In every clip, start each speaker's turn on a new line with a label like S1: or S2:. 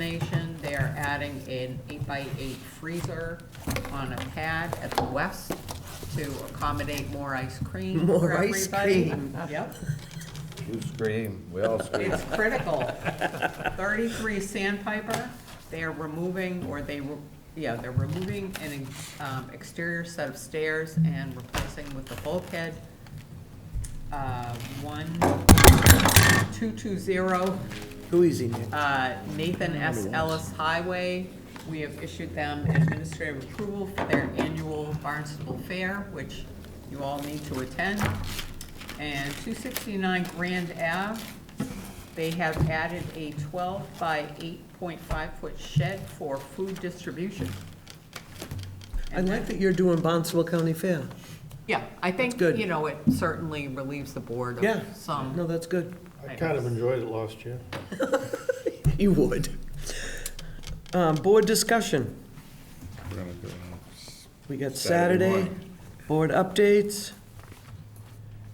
S1: destination. They are adding an eight-by-eight freezer on a pad at the west to accommodate more ice cream
S2: More
S1: for
S2: ice
S1: everybody.
S2: cream.
S1: Yep.
S3: You scream, we all scream.
S1: It's critical. Thirty-three Sandpiper, they are removing, or they, re- yeah, they're removing an um, exterior set of stairs and replacing with the bulkhead. Uh, One, two-two-zero,
S2: Too easy, Nick.
S1: uh, Nathan S. Ellis Highway. We have issued them administrative approval for their annual Barnstable Fair, which you all need to attend. And 269 Grand Ave, they have added a 12 by 8.5 foot shed for food distribution.
S2: I like that you're doing Bonsall County Fair.
S1: Yeah, I think,
S2: good.
S1: you know, it certainly relieves the board
S2: Yeah.
S1: of some.
S2: No, that's good.
S4: I kind of enjoyed it last year.
S2: You would. Um, board discussion. We got Saturday, board updates,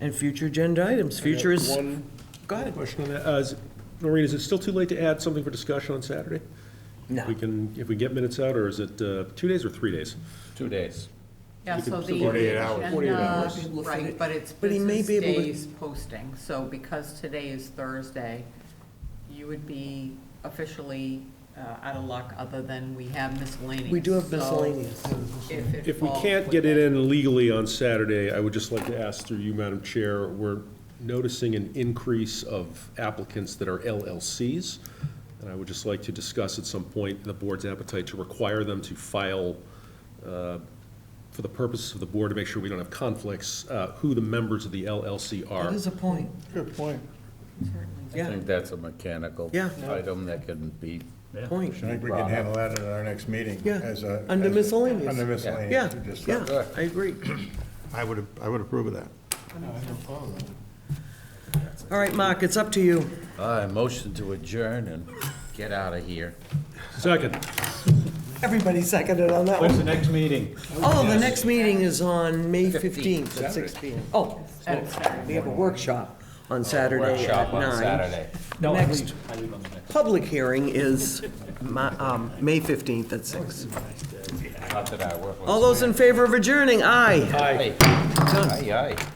S2: and future agenda items. Future is,
S5: One
S2: go ahead.
S5: question on that. Uh, is- Maureen, is it still too late to add something for discussion on Saturday?
S2: No.
S5: We can, if we get minutes out, or is it uh, two days or three days?
S3: Two days.
S1: Yeah, so the.
S4: 48 hours.
S2: 48 hours.
S1: agenda- Right, but it's
S2: But he may
S1: business
S2: be able to-
S1: days posting, so because today is Thursday, you would be officially uh, out of luck, other than we have miscellaneous.
S2: We do have
S1: So
S2: miscellaneous.
S1: If it
S5: If we
S1: falls
S5: can't get it
S1: within-
S5: in legally on Saturday, I would just like to ask through you, Madam Chair, we're noticing an increase of applicants that are LLCs, and I would just like to discuss at some point the board's appetite to require them to file, uh, for the purposes of the board, to make sure we don't have conflicts, uh, who the members of the LLC are.
S2: That is a point.
S4: Good point.
S3: I
S2: Yeah,
S3: think that's a mechanical
S2: Yeah.
S3: item that can be.
S2: point.
S4: I think we can handle that at our next meeting.
S2: Yeah,
S4: as a-
S2: under
S4: as a-
S2: miscellaneous.
S4: Under
S2: Yeah,
S4: miscellaneous. to just-
S2: yeah, I agree.
S4: I would, I would approve of that.
S2: All right, Mark, it's up to you.
S3: I uh, motion to adjourn and get out of here.
S5: Second.
S2: Everybody seconded on that one.
S6: the next meeting?
S2: Oh, the next meeting is on May 15th at six PM. Oh,
S1: At Saturday.
S2: we have a workshop on Saturday at
S3: Workshop on
S2: nine.
S3: Saturday.
S6: No, I
S2: Next.
S6: leave, I leave on the next.
S2: Public hearing is Ma- um, May 15th at six.
S3: Not that I work with.
S2: Oh. All those in favor of adjourning, aye.
S3: Aye. Aye, aye.